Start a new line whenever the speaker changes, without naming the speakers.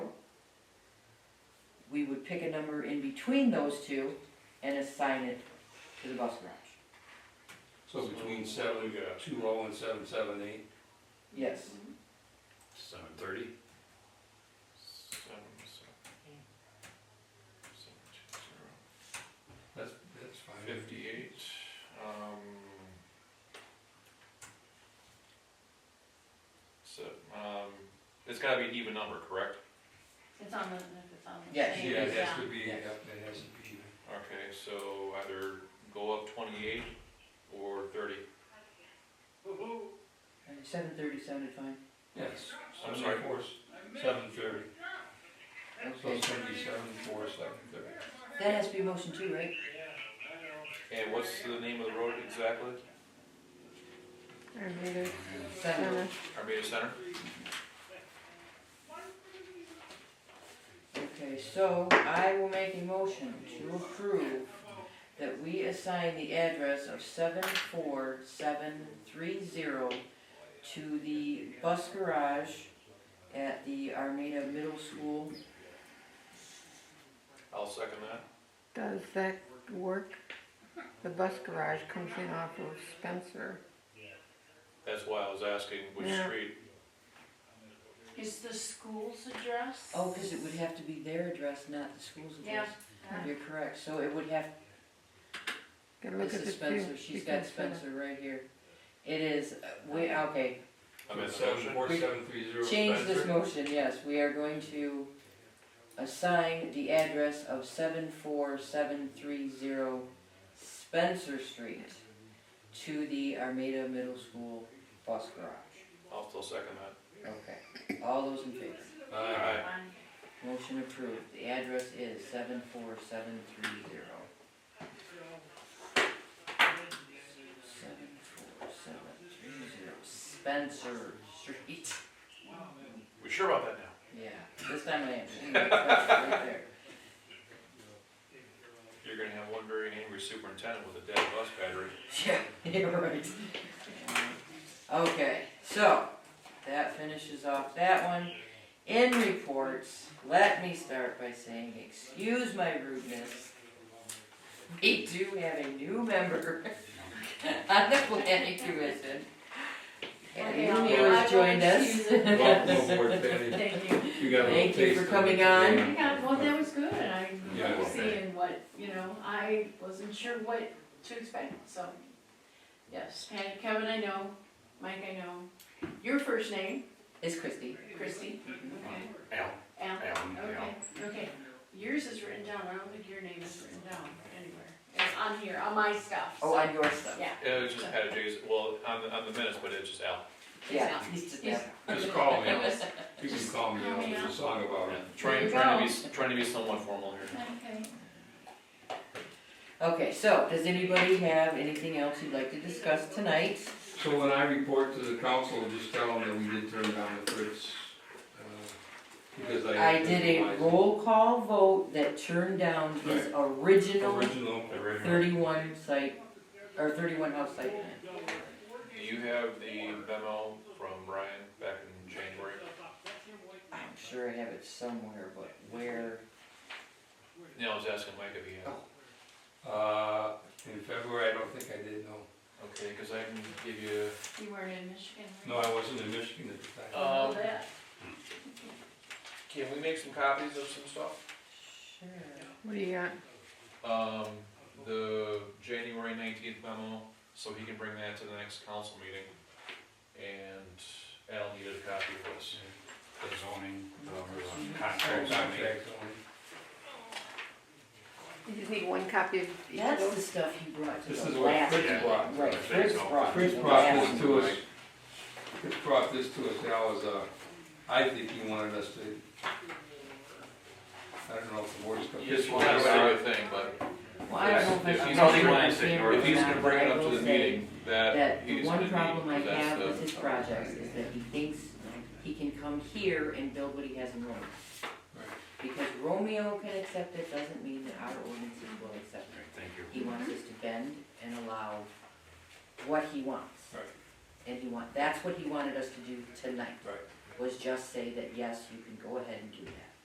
pick a number in between those two and assign it to the bus garage.
So between seven, two oh and seven, seven, eight,
Yes,
seven thirty?
Seven, seven, eight. Seven, two, zero.
That's, that's fine.
Fifty-eight, um. So, um, it's gotta be an even number, correct?
It's on the, if it's on the.
Yes.
same,
Yeah, it has to be,
Yeah.
yep, it has to be.
Okay, so either go up twenty-eight or thirty.
seven thirty sounded fine.
Yes.
I'm sorry.
Seven thirty, so
Okay,
it's gonna be seven, four, seven thirty.
that has to be motion two, right?
And what's the name of the road exactly?
Armada
Seven,
Center.
Armada Center?
okay, so I will make a motion to approve that we assign the address of seven four seven three zero to the bus garage at the Armada Middle School.
I'll second that.
Does that work? The bus garage comes in off of Spencer.
That's why I was asking which
Yeah.
street.
Is the school's address?
Oh, cause it would have to be their address, not the school's address.
Yeah.
You're correct, so it would have
Can look at
This
the
is Spencer, she's got Spencer right here. It is, uh, we, okay,
I'm in the
Seven,
motion.
four, seven, three, zero,
change this
Spencer.
motion, yes, we are going to assign the address of seven four seven three zero Spencer Street to the Armada Middle School bus garage.
I'll still second that.
Okay, all those in favor?
Aye.
Fine.
Motion approved, the address is seven four seven three zero. Seven four seven three zero Spencer Street,
We sure about that now?
yeah, this time I am, Ooh, that's right there.
You're gonna have one very angry superintendent with a dead bus battery.
Yeah, you're right. Okay, so, that finishes off that one. In reports, let me start by saying, excuse my rudeness. We do have a new member on the planning commission. And
Okay,
you
I'll-
new
I
has
will
joined us.
excuse it.
Welcome aboard, Patty.
Thank you.
You got a little
Thank you
taste
for
of it
coming
today.
I got, well, that was good, I
Yeah,
was
okay.
seeing what, you know, I wasn't sure what to expect, so. Yes, and Kevin, I know, Mike, I know, your first name,
It's Christie.
Christy, okay,
Al.
Al,
Alan,
okay, okay. Yours is written down, I don't think your name is written down anywhere, it's on here, on my stuff,
Oh,
so,
on your stuff.
yeah.
It was just Pat J's, well, on the, on the minutes, but it's just Al.
Yeah, he's just, yeah.
Just call me,
It
Al.
was-
you can call me,
Call
Al,
me,
there's a song about it.
Trying,
you
trying to
go.
be, s- trying to be somewhat formal here.
Okay.
Okay, so, does anybody have anything else you'd like to discuss tonight?
So when I report to the council, just tell them that we did turn down the Fritz, uh, because I.
I did a roll call vote that turned down his original
Original.
thirty-one site, or thirty-one house site plan.
Do you have the memo from Ryan back in January?
I'm sure I have it somewhere, but where?
No, I was asking Mike if he had.
Uh, in February, I don't think I did, no.
Okay, cause I can give you,
You weren't in Michigan,
No, I wasn't in Michigan at the time.
um,
that.
can we make some copies of some stuff?
Sure.
What do you got?
Um, the January nineteenth memo, so he can bring that to the next council meeting. And Al needed a copy of this.
the zoning, um, the
Sorry,
contracts, I mean.
contract only.
You just need one copy of each of
That's
those?
the stuff he brought to
This
the
is what
last,
Fritz
Yeah.
brought.
right, Fritz brought.
Fritz
the
brought
last
this to us, Fritz brought this to us, that was, uh, I think he wanted us to, I don't know if the board's. gonna-
Yes, well, that's a good thing, but
one. Well, I don't know
If
if I
he's
probably
gonna-
wants him or
If he's
not,
gonna
but
bring
I
it up
will
to the
say
meeting, that
Uh,
That the
he's
one
gonna
problem I
need,
have with
that's
his projects is that he thinks he can come here and build what he has in Rome.
Right.
Because Romeo can accept it, doesn't mean that our ordinances will accept it.
Great, Thank you.
He wants us to bend and allow what he wants.
Right.
And he want, that's what he wanted us to do tonight.
Right.
Was just say that, yes, you can go ahead and do that.